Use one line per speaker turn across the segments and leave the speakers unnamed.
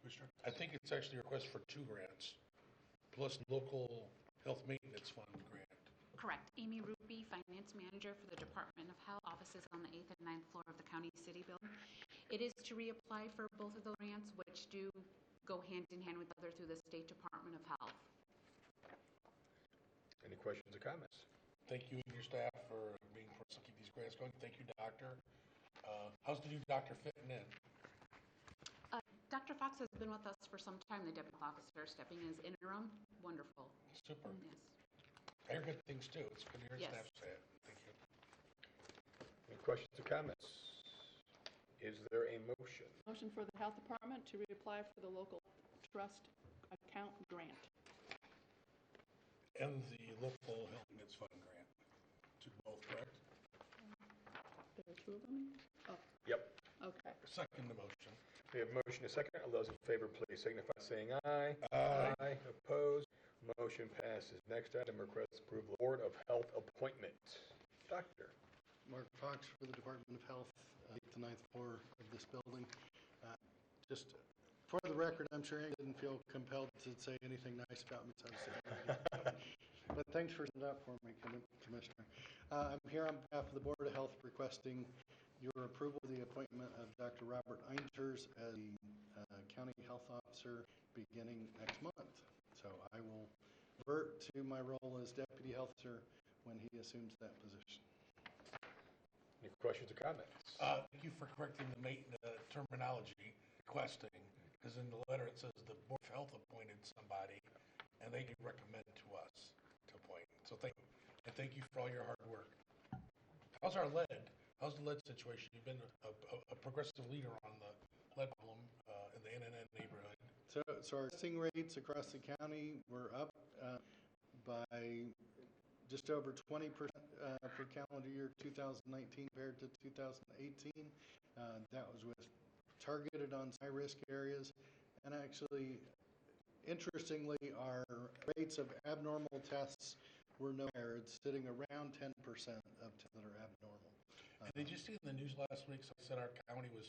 Commissioner. I think it's actually a request for two grants, plus local health maintenance fund grant.
Correct. Amy Ruby, Finance Manager for the Department of Health, offices on the 8th and ninth floor of the County City Building. It is to reapply for both of those grants, which do go hand in hand with other through the State Department of Health.
Any questions or comments?
Thank you and your staff for being, for keep these grants going. Thank you, doctor. Uh, How's the new doctor fitting in?
Uh, Dr. Fox has been with us for some time, the deputy officer stepping in as interim. Wonderful.
Super.
Yes.
I hear good things too. It's good to hear
Yes.
staff say it. Thank you.
Any questions or comments? Is there a motion?
Motion for the Health Department to reapply for the local trust account grant.
And the local health maintenance fund grant to both, correct?
There are two of them? Oh,
Yep,
okay.
Second the motion.
we have motion and second. All those in favor, please signify by saying aye. Aye. Opposed? Motion passes. Next item, request approval of Board of Health appointment. Doctor,
Mark Fox for the Department of Health, uh, eighth to ninth floor of this building. Uh, Just for the record, I'm sure Ann didn't feel compelled to say anything nice about me, so I said, but thanks for setting up for me, Commi- Commissioner. Uh, I'm here on behalf of the Board of Health requesting your approval of the appointment of Dr. Robert Einters as the uh, County Health Officer beginning next month. So I will revert to my role as Deputy Health Officer when he assumes that position.
any questions or comments?
Uh, Thank you for correcting the ma- the terminology, requesting, because in the letter it says the Board of Health appointed somebody, and they can recommend to us to appoint. So thank, and thank you for all your hard work. How's our lead? How's the lead situation? You've been a- a a progressive leader on the lead problem uh, in the NNN neighborhood.
So, so our testing rates across the county were up uh, by just over 20% uh, for calendar year 2019 compared to 2018. Uh, That was with targeted on high-risk areas. And actually, interestingly, our rates of abnormal tests were no higher. It's sitting around 10% of tests that are abnormal.
And Did you see in the news last week, so said our county was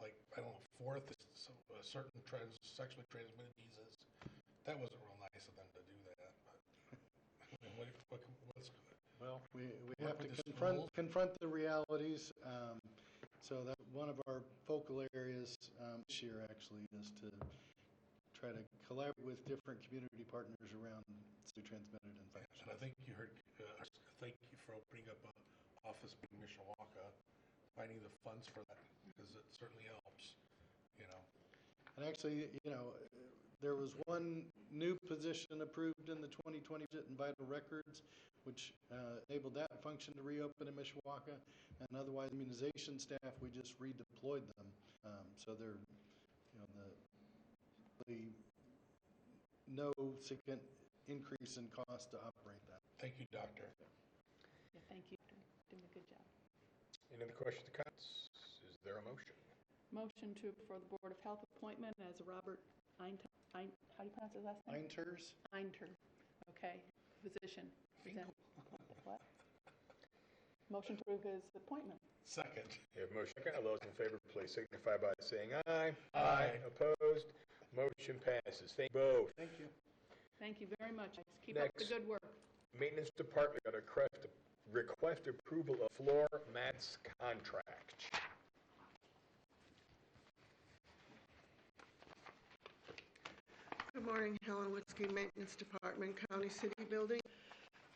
like, I don't know, fourth, so uh, certain trans, sexually transmitted diseases? That wasn't real nice of them to do that, but, I mean, what, what, what's,
Well. We, we
Work
have to
with the schools.
confront, confront the realities. um, So that's one of our focal areas um, this year, actually, is to try to collaborate with different community partners around the transmitted
and I
infection.
think you heard, uh, thank you for opening up a office in Mishawaka, finding the funds for that, because it certainly helps, you know?
And actually, you know, there was one new position approved in the 2020 budget in vital records, which uh, enabled that function to reopen in Mishawaka. And otherwise, immunization staff, we just redeployed them. Um, So they're, you know, the, the no significant increase in cost to operate that.
Thank you, doctor.
Yeah, thank you. Doing a good job.
Any other questions or comments? Is there a motion?
Motion to, for the Board of Health appointment as Robert Eint, Eint- how do you pronounce his last name?
Einters,
Einter. Okay, physician. Present- What? Motion to approve his appointment.
Second,
We have motion second. All those in favor, please signify by saying aye.
Aye.
Opposed? Motion passes. Thank you both.
thank you.
Thank you very much. Keep up the
Next.
good work.
Maintenance Department got a request, request approval of floor mats contract.
Good morning, Helen Witzke, Maintenance Department, County City Building.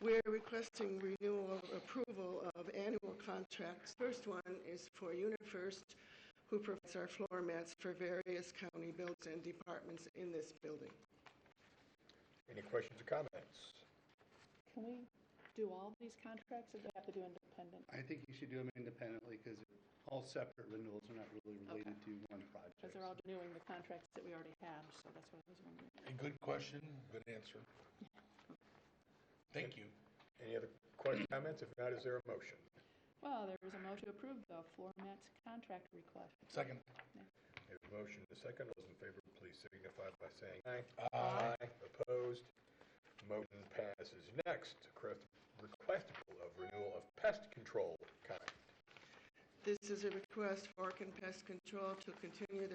We're requesting renewal of approval of annual contracts. First one is for UniFirst, who provides our floor mats for various county buildings and departments in this building.
Any questions or comments?
Can we do all these contracts or do we have to do independent?
I think you should do them independently because all separate renewals are not really related to one project.
Because they're all renewing the contracts that we already have, so that's what I was wondering.
A good question, good answer. Thank you.
Any other questions, comments? If not, is there a motion?
Well, there is a motion to approve the floor mats contract request.
Second,
We have a motion and a second. All Those in favor, please signify by saying aye.
Aye.
Opposed? Motion passes. Next, request- request approval of renewal of pest control contract.
This is a request for Orkin Pest Control to continue their